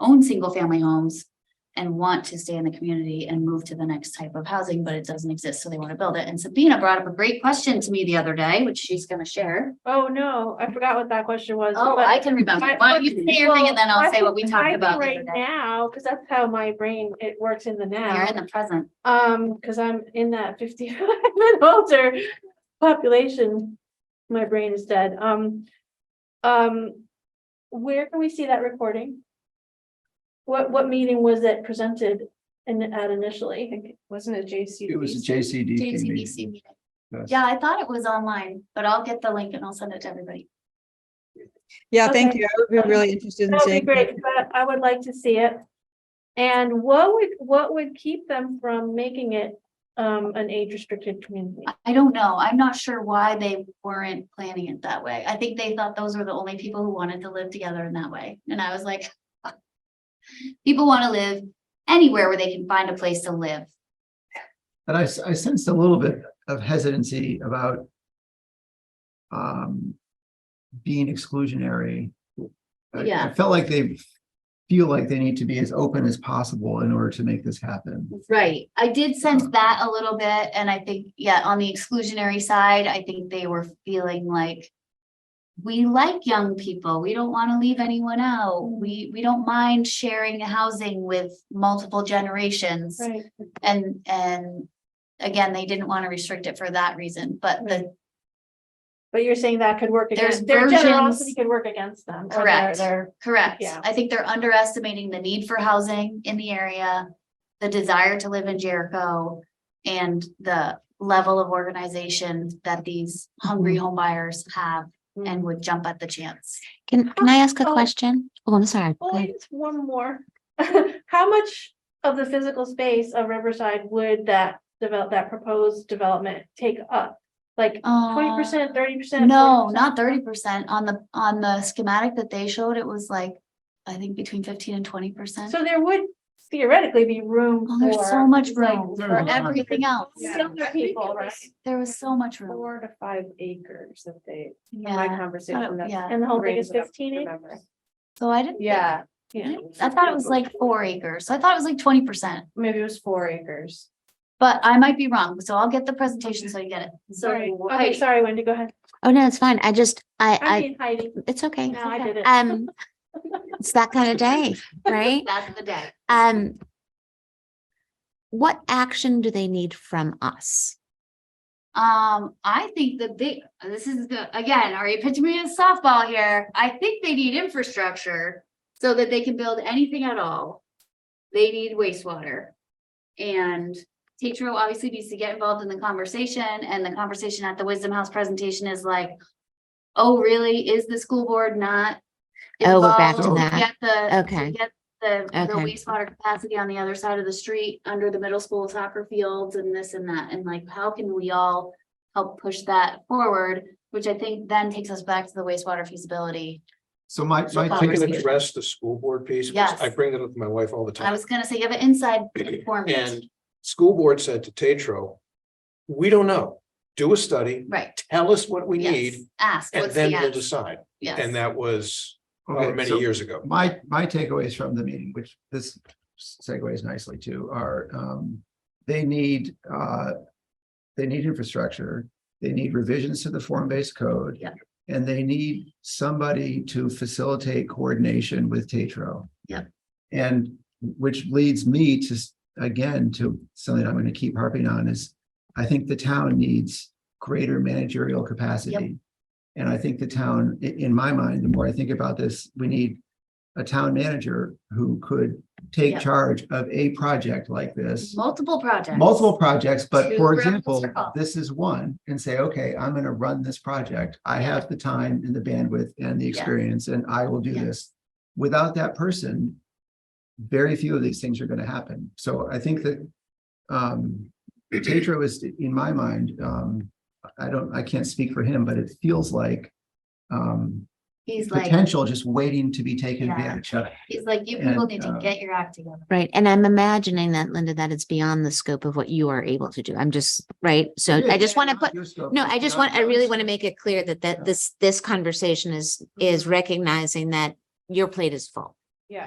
own single family homes and want to stay in the community and move to the next type of housing, but it doesn't exist, so they want to build it. And Sabina brought up a great question to me the other day, which she's gonna share. Oh, no, I forgot what that question was. Oh, but- I can remember. but- Why don't you say your thing and then I'll well, say what we I talked think about the Right other day. now, because that's how my brain, it works in the You're now, in the present. um, because I'm in that fifty-five and older population. My brain is dead, um, um, where can we see that recording? What, what meeting was it presented in, at initially? Wasn't it JC? It was a JCDC JCDC meeting. meeting. Yes. Yeah, I thought it was online, but I'll get the link and I'll send it to everybody. Yeah, thank Okay. you. I would be really interested in That'd be seeing. great, but I would like to see it. And what would, what would keep them from making it um an age restricted community? I don't know. I'm not sure why they weren't planning it that way. I think they thought those were the only people who wanted to live together in that way. And I was like, people want to live anywhere where they can find a place to live. And I, s- I sensed a little bit of hesitancy about um, being exclusionary. I- Yeah. I felt like they feel like they need to be as open as possible in order to make this happen. Right. I did sense that a little bit. And I think, yeah, on the exclusionary side, I think they were feeling like we like young people. We don't want to leave anyone out. We, we don't mind sharing housing with multiple generations. Right, And, and again, they didn't want to restrict it for that reason, but the, but you're saying that could work There's against, their generosity versions- could work against them. or their- Correct. Their, correct. Yeah. I think they're underestimating the need for housing in the area, the desire to live in Jericho, and the level of organization that these hungry Mm-hmm. home buyers have and would jump at the chance. Can, can I ask a Oh. question? Oh, I'm sorry. Go oh, ahead. just one more. How much of the physical space of Riverside would that develop, that proposed development take up? Like twenty percent, thirty percent? Uh, No, not thirty percent. On the, on the schematic that they showed, it was like, I think between fifteen and twenty percent. So there would theoretically be room Oh, for. there's so much room like, for Mhm. everything else. Yeah. Younger people, right? There was so much room. Four to five acres that they, from my Yeah. conversation. that yeah. And the whole thing brings is it up, fifteen remember. acres? So I didn't. Yeah. I didn't- I thought it was like four acres. So I thought it was like twenty percent, Maybe it was four acres. but I might be wrong. So I'll get the presentation so you get it. So Sorry, okay, sorry, Wendy, go ahead. Oh, no, it's fine. I just, I I, mean Heidi, I, it's okay. no, I did it. Um, it's that kind of day, right? that's the day. Um, what action do they need from us? Um, I think that they, this is good, again, are you pitching me a softball here? I think they need infrastructure so that they can build anything at all. They need wastewater. And Tetro obviously needs to get involved in the conversation and the conversation at the Wisdom House presentation is like, oh, really? Is the school board not? Oh, we're back to involved that. Get the, Okay. get the, the Okay. wastewater capacity on the other side of the street, under the middle school soccer fields and this and that, and like, how can we all help push that forward, which I think then takes us back to the wastewater feasibility. So my, So my I can conversation. address the school board piece, because I Yes. bring that up with my wife all the time. I was gonna say, you have an inside informant, And school board said to Tetro, we don't know, do a study, right? tell us what we yes. need, Ask, and what's the then we'll ask? decide. And Yes, that was however Okay, many so years ago. my, my takeaways from the meeting, which this segues nicely to, are um, they need, uh, they need infrastructure, they need revisions to the form-based code. Yep. And they need somebody to facilitate coordination with Tetro. Yep. And which leads me to, s- again, to something I'm going to keep harping on is I think the town needs greater managerial capacity. And I think the town, i- in my mind, the more I think about this, we need a town manager who could take Yep. charge of a project like this. multiple projects. Multiple projects, but Two for round example, circle. this is one and say, okay, I'm gonna run this project. I have the time and the bandwidth and the Yes. experience and I will do Yeah. this. Without that person, very few of these things are gonna happen. So I think that um Tetro is, in my mind, um, I don't, I can't speak for him, but it feels like um He's like, potential just waiting to be taken Yeah. advantage of. he's like, you and, people need to uh, get your act together. Right. And I'm imagining that, Linda, that it's beyond the scope of what you are able to do. I'm just, right? So I just want to put, no, I just want, I really want to make it clear that, Yeah. that this, this conversation is, is recognizing that your plate is full.